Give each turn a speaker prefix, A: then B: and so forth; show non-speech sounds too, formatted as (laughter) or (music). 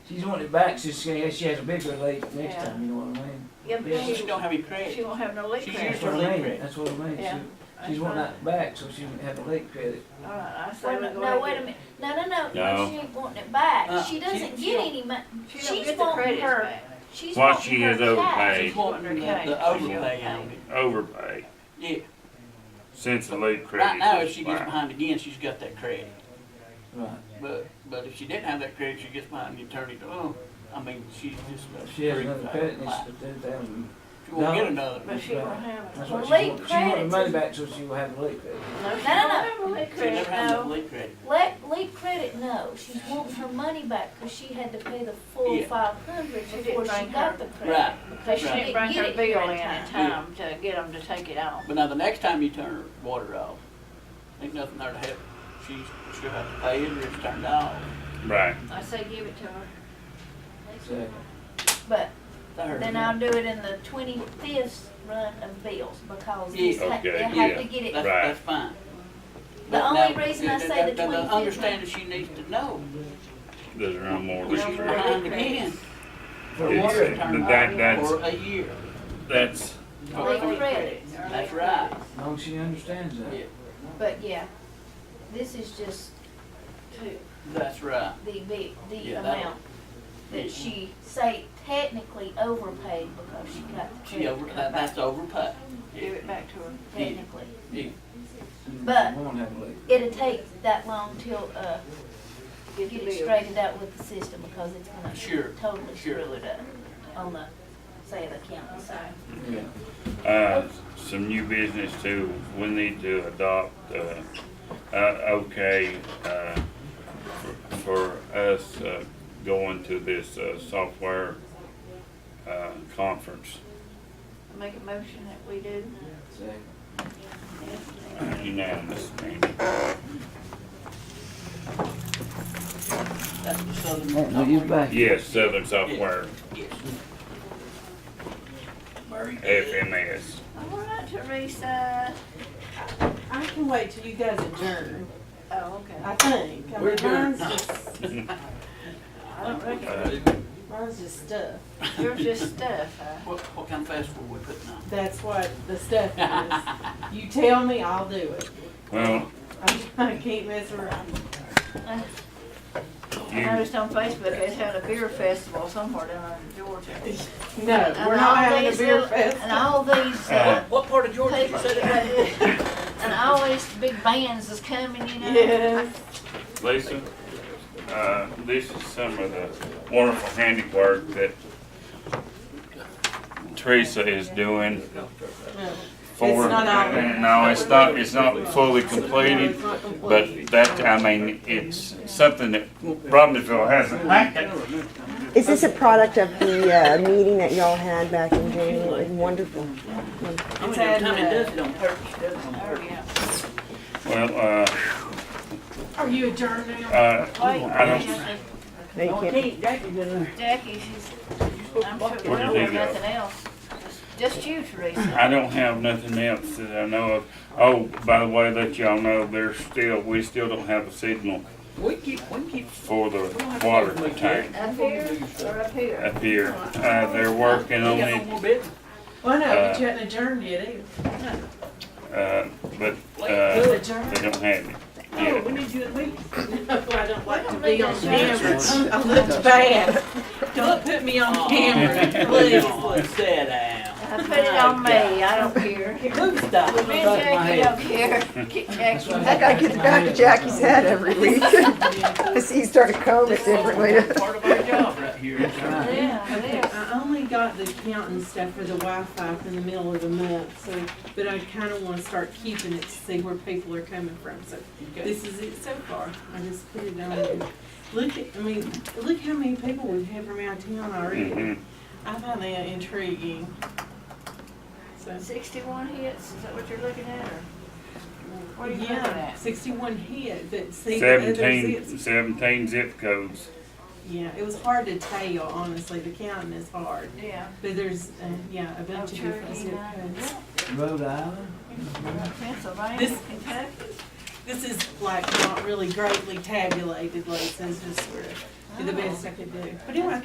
A: She's wanting it back, so she, she has a bigger lake next
B: Yeah.
A: time, you know what I mean?
B: Yeah, but
A: Yeah.
B: then
C: She just
B: you-
C: don't have any credit.
B: she won't have no leak
C: She's
B: credit.
C: used
A: That's
C: her
A: what I
C: lake
A: mean,
C: credit.
A: that's what I mean,
B: Yeah.
A: she, she's wanting that back, so she wouldn't have a lake credit.
B: All right, I say
D: Wait
B: we
D: a minute,
B: go
D: no,
B: ahead
D: wait a
B: and-
D: minute, no, no, no,
E: No.
D: no, she ain't wanting it back,
C: Uh,
D: she doesn't
C: she- she
D: get any money,
B: She don't
D: She's
B: get the
D: wanting
B: credits
D: her-
B: back.
D: she's
E: What
D: wanting
E: she
D: her
E: is
D: cash.
E: overpaid.
C: She's wanting the, the overpay on it.
E: overpay
C: Yeah,
E: since the lead credit.
C: right now, if she gets
E: expired.
C: behind again, she's got that credit.
A: Right.
C: But, but if she didn't have that credit, she gets behind the attorney, oh, I mean, she's just. uh, about
A: She has another
C: three,
A: credit, and
C: five.
A: it's ten thousand,
C: She won't get
A: No.
C: another.
B: But she won't have it.
A: that's what she
D: Lake
A: wants, she wants her
D: credits
A: money
D: is-
A: back, so she will have a lake credit.
B: No, she
D: No, no,
B: don't
D: no.
B: have a leak
C: She never
B: credit,
C: had
B: no.
C: enough lead credit.
D: Let, leave credit, no, she's wanting her money back, cause she had to pay the full
C: Yeah.
D: five hundred
B: She didn't
D: before she
B: bring her-
D: got the credit.
C: Right,
B: Because she
C: Right.
B: didn't bring
D: Get
B: her
D: it
B: bill in
D: here in
B: in time to get them to take it off.
C: but now the next time you turn her water off, ain't nothing there to help. She's, she'll have to pay it or it's turned off.
E: Right.
B: I say give it to her.
A: So,
D: But
C: To her.
D: then I'll do it in the twenty-fifth run of bills, because
C: Yeah.
D: this ha-
E: Okay,
D: they have to
E: yeah.
D: get
C: That's,
D: it,
E: Right.
C: that's fine.
D: The
C: But
D: only
C: now,
D: reason I
C: the-
D: say
C: the-
D: the
C: the- the
D: 25th
C: Understanding she needs to know,
E: There's no more
C: when
E: lead
C: she's
E: credit.
C: behind again,
A: For
E: It's-
A: water,
C: water turned
E: that-
C: off
E: that's-
C: for a year.
E: That's
C: for
D: Leak
C: three
D: credit.
C: credits. That's right,
A: as long as she understands
C: yeah,
A: that.
D: but yeah, this is just to
C: that's right.
D: the, bi- the
C: Yeah, that-
D: amount that she say technically overpaid because she got the
C: She
D: credit
C: over, that,
D: card back,
C: that's overpay.
B: Give it back to her.
C: yeah.
D: technically.
C: Yeah,
D: But-
A: She won't have a lake.
D: It'll take that long till, uh,
B: Get
D: get
B: the
D: it
B: bill.
D: straightened out with the system because it's
C: Sure,
D: gonna totally
C: sure.
D: screw it up on the, say, the county side.
A: Yeah.
E: uh, some new business too. We need to adopt uh, uh, okay uh, for, for us uh, going to this uh, software uh, conference.
B: Make a motion that we do.
A: So,
E: Uh, unanimous. Randy.
C: that's the southern.
A: no, you're back.
E: Yes, Southern Software
C: Yes. Murray.
E: FMS.
B: All right, Teresa.
F: I can wait till you guys adjourn,
B: Oh, okay.
F: I think. I
C: We're
F: mean,
C: adjourned.
F: mine's just,
B: I don't reckon.
E: Uh,
F: mine's just stuff.
B: You're just stuff, uh, huh?
C: What, what kind of fast food we putting on?
F: That's what the stuff
C: (laughs)
F: is. You tell me, I'll do it.
E: Well,
F: I (laughs) I can't mess around.
B: I
E: you,
B: noticed on Facebook, they had a beer festival somewhere down in Georgia.
F: No,
D: And
F: we're not
D: all
F: having a
D: these
F: beer
D: little- And
F: fest.
D: all these,
E: Uh,
D: uh,
C: What part of Georgia did you
D: people,
C: say that?
D: and all these big bands is coming, you know?
F: Yes.
E: Lisa, uh, this is some of the wonderful handiwork that Teresa is doing
F: No.
E: for.
F: It's not out there.
E: No, it's not, it's not fully completed,
F: It's not
E: but
F: complete.
E: that, I mean, it's something that Robbinsville hasn't had.
G: Is this a product of the uh, meeting that y'all had back in January? Wonderful.
C: How many times it does it on purpose, does it on
B: Oh,
C: purpose?
B: yeah.
E: Well,
F: Are you adjourned
E: uh,
F: now?
E: uh, I
B: Wait,
E: don't,
G: No, you can't.
C: Hey, Jackie's in there.
B: Jackie, she's, I'm sure,
E: What do you
B: well, there's
E: think of?
B: nothing else. Just you, Teresa.
E: I don't have nothing else that I know of. Oh, by the way, let y'all know, there's still, we still don't have a signal
C: We keep, we keep.
E: for the water tank.
B: Up here or up here?
E: up here. Uh, they're working on
C: We got no
E: it,
C: more business.
F: Well, no,
E: Uh,
F: but you hadn't adjourned yet either.
E: uh, but,
F: You
E: uh,
F: adjourned?
E: they don't have it
C: No, we
E: yet.
C: need you at least.
F: No, I don't like to
B: don't
F: be
B: need
F: on
B: to
F: camera. I look (laughs) bad. Don't put me on camera, please.
C: Oh, (laughs) Please, sit down.
B: I put it on me, I don't
D: (laughs)
B: care. Me
C: Move stop.
B: and Jackie don't care. Get Jackie.
G: I gotta get it back to Jackie's head every week. (laughs) I see you start to comb it differently. (laughs)
C: Part of our job right here.
B: Yeah,
F: Okay,
B: it is.
F: I only got the accounting stuff for the Wi-Fi up in the middle of the month, so, but I kinda wanna start keeping it to see where people are coming from, so this is it so far. I just put it on. there. Look at, I mean, look how many people we've had from out of town already.
E: Mhm.
F: I find that intriguing. So,
B: Sixty-one hits, is that what you're looking at, or? What are you looking
F: yeah,
B: at?
F: sixty-one hit, but see the other
E: Seventeen,
F: zips-
E: seventeen zip codes.
F: Yeah, it was hard to tell, honestly, the counting is hard,
B: Yeah.
F: but there's, uh, yeah, a bunch of
B: Cherokee
F: different zip
B: Nine,
F: codes.
B: yeah.
A: Rhode Island?
B: Pennsylvania,
F: This-
B: Kentucky.
F: this is like not really greatly tabulated, like, so it's just sort of, did the best I could do. But anyway,